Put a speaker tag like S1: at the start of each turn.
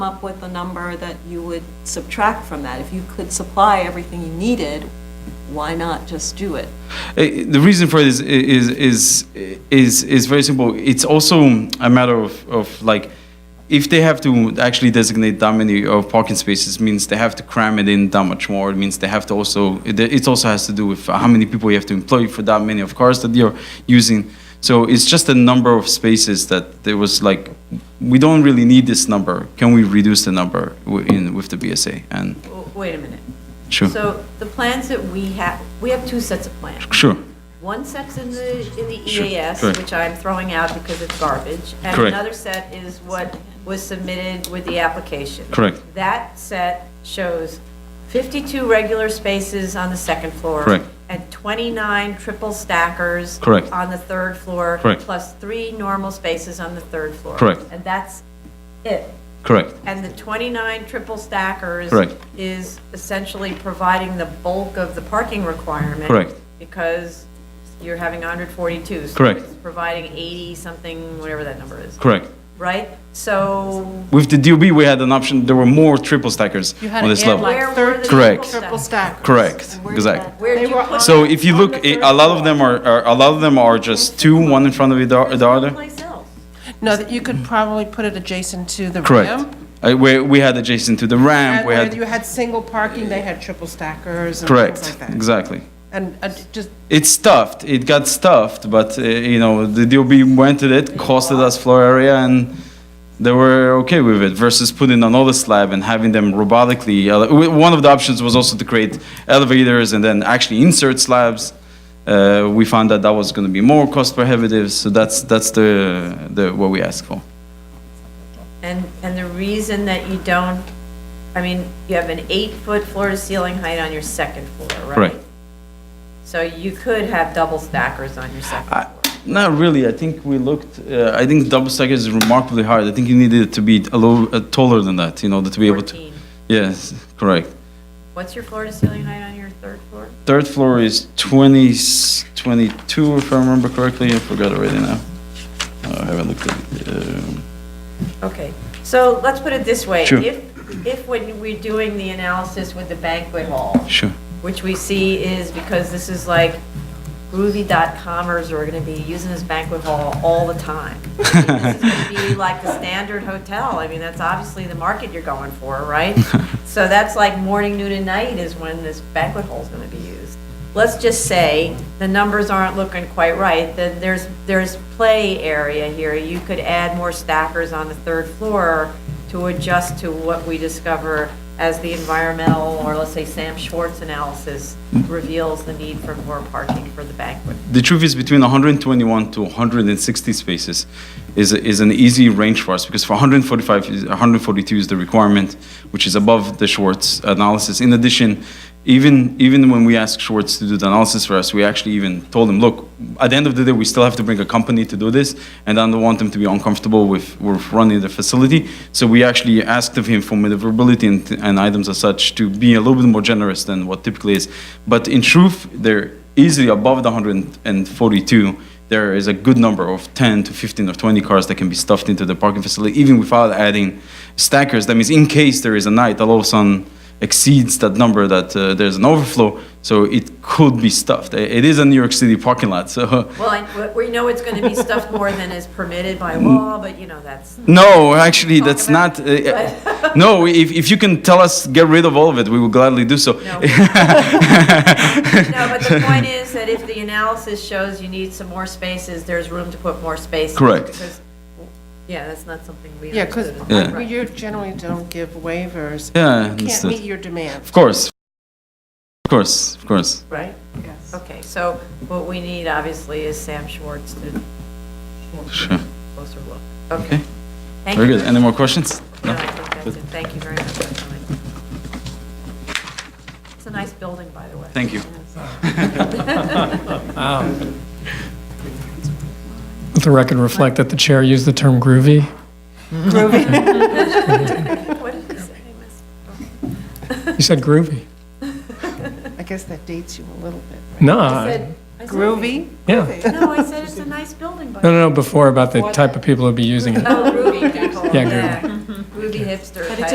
S1: up with a number that you would subtract from that. If you could supply everything you needed, why not just do it?
S2: Eh, the reason for it is is is is is very simple. It's also a matter of of like if they have to actually designate that many of parking spaces means they have to cram it in that much more. It means they have to also it, it also has to do with how many people you have to employ for that many of cars that you're using. So it's just a number of spaces that there was like we don't really need this number. Can we reduce the number wi- in with the BSA? And
S3: W- Wait a minute.
S2: sure,
S3: So the plans that we have, we have two sets of plans.
S2: sure,
S3: One set's in the, in the
S2: Sure,
S3: EAS,
S2: correct.
S3: which I'm throwing out because it's garbage. And
S2: Correct.
S3: another set is what was submitted with the application.
S2: Correct.
S3: That set shows 52 regular spaces on the second floor.
S2: Correct.
S3: And 29 triple stackers.
S2: Correct.
S3: On the third floor.
S2: Correct.
S3: Plus three normal spaces on the third floor.
S2: Correct.
S3: And that's it.
S2: correct,
S3: And the 29 triple stackers.
S2: Correct.
S3: Is essentially providing the bulk of the parking requirement.
S2: Correct.
S3: Because you're having 142. so
S2: Correct.
S3: it's Providing 80-something, whatever that number is.
S2: correct.
S3: Right? So
S2: With the DOB, we had an option. There were more triple stackers
S4: You had
S2: on
S4: to
S2: this
S4: add
S2: level.
S4: like
S3: Where were the
S4: 13
S2: Correct.
S4: triple stackers.
S2: Correct. Exactly.
S3: where do
S4: They
S3: you
S4: were
S3: put?
S2: So if you look, i- a lot of them are, are a lot of them are just two, one in front of the o- the other.
S3: Someplace else.
S4: No, that you could probably put it adjacent to the
S2: Correct.
S4: ramp.
S2: Uh, where we had adjacent to the ramp,
S4: And
S2: we
S4: where you
S2: had
S4: had single parking, they had triple stackers and things
S2: correct,
S4: like that.
S2: exactly.
S4: And uh, just,
S2: It's stuffed. It got stuffed, but uh, you know the DOB went to it, costed us floor area, and they were okay with it. Versus putting another slab and having them robotically. ele- w- one of the options was also to create elevators and then actually insert slabs. Uh, we found that that was going to be more cost prohibitive, so that's that's the the what we asked for.
S3: And, and the reason that you don't, I mean, you have an eight-foot floor-to-ceiling height on your second floor, right?
S2: Correct.
S3: So you could have double stackers on your second
S2: I-
S3: floor.
S2: Not really. I think we looked. Uh, I think double stack is remarkably hard. I think you needed it to be a little uh, taller than that in order to be able to.
S3: 14.
S2: Yes, correct.
S3: What's your floor to ceiling height on your third floor?
S2: Third floor is 20, s- 22, if I remember correctly. I forgot already now. Uh, I haven't looked at it. Um,
S3: Okay, so let's put it this way.
S2: Sure.
S3: If, if when we're doing the analysis with the banquet hall,
S2: Uh, sure.
S3: which we see is because this is like groovy dot comers are gonna be using this banquet hall all the time. This is gonna be like the standard hotel. I mean, that's obviously the market you're going for, right? So that's like morning, noon, and night is when this banquet hall's gonna be used. Let's just say the numbers aren't looking quite right, then there's, there's play area here. You could add more stackers on the third floor to adjust to what we discover as the environmental, or let's say Sam Schwartz analysis reveals the need for more parking for the banquet.
S2: The truth is between 121 to 160 spaces is, is an easy range for us because for 145, is- 142 is the requirement, which is above the Schwartz analysis. In addition, even, even when we asked Schwartz to do the analysis for us, we actually even told him, look, at the end of the day, we still have to bring a company to do this, and I don't want them to be uncomfortable with, with running the facility. So we actually asked of him for maneuverability and, and items as such to be a little bit more generous than what typically is. But in truth, there easily above the 142, there is a good number of 10 to 15 or 20 cars that can be stuffed into the parking facility, even without adding stackers. That means in case there is a night that all of a sudden exceeds that number, that uh, there's an overflow, so it could be stuffed. It it is a New York City parking lot, so
S3: Well, I- we know it's going to be stuffed more than is permitted by law, but you know, that's,
S2: no, actually, that's
S3: about
S2: not. Uh, no, if, if you can tell us get rid of all of it, we will gladly do so.
S3: no. No, but the point is that if the analysis shows you need some more spaces, there's room to put more spaces.
S2: Correct.
S3: because- Yeah, that's not something we
S4: yeah, because
S3: understood. as
S2: Yeah.
S3: well, right.
S4: you generally don't give waivers.
S2: Yeah,
S4: You can't
S2: understood.
S4: meet your demand.
S2: Of course, of course, of course.
S3: Right? Yes. Okay, so what we need obviously is Sam Schwartz to
S2: Sure.
S3: closer look. Okay. Thank
S2: Very
S3: you
S2: good. Any more questions?
S3: No, I think that's it. Thank you very much. for coming. It's a nice building, by the way.
S2: Thank you.
S5: Let the record reflect that the chair used the term groovy.
S3: What did you say, Miss?
S5: You said groovy.
S4: I guess that dates you a little bit. right?
S5: No,
S3: I
S5: I-
S3: said- I said-
S4: Groovy?
S5: yeah.
S3: No, I said it's a nice building, by the
S5: No,
S3: way.
S5: Oh, no, no, before about the type of people who'd be using it.
S3: Oh, Ruby people.
S5: Yeah, groovy.
S3: Ruby
S6: hipster
S3: But
S6: type.
S3: it's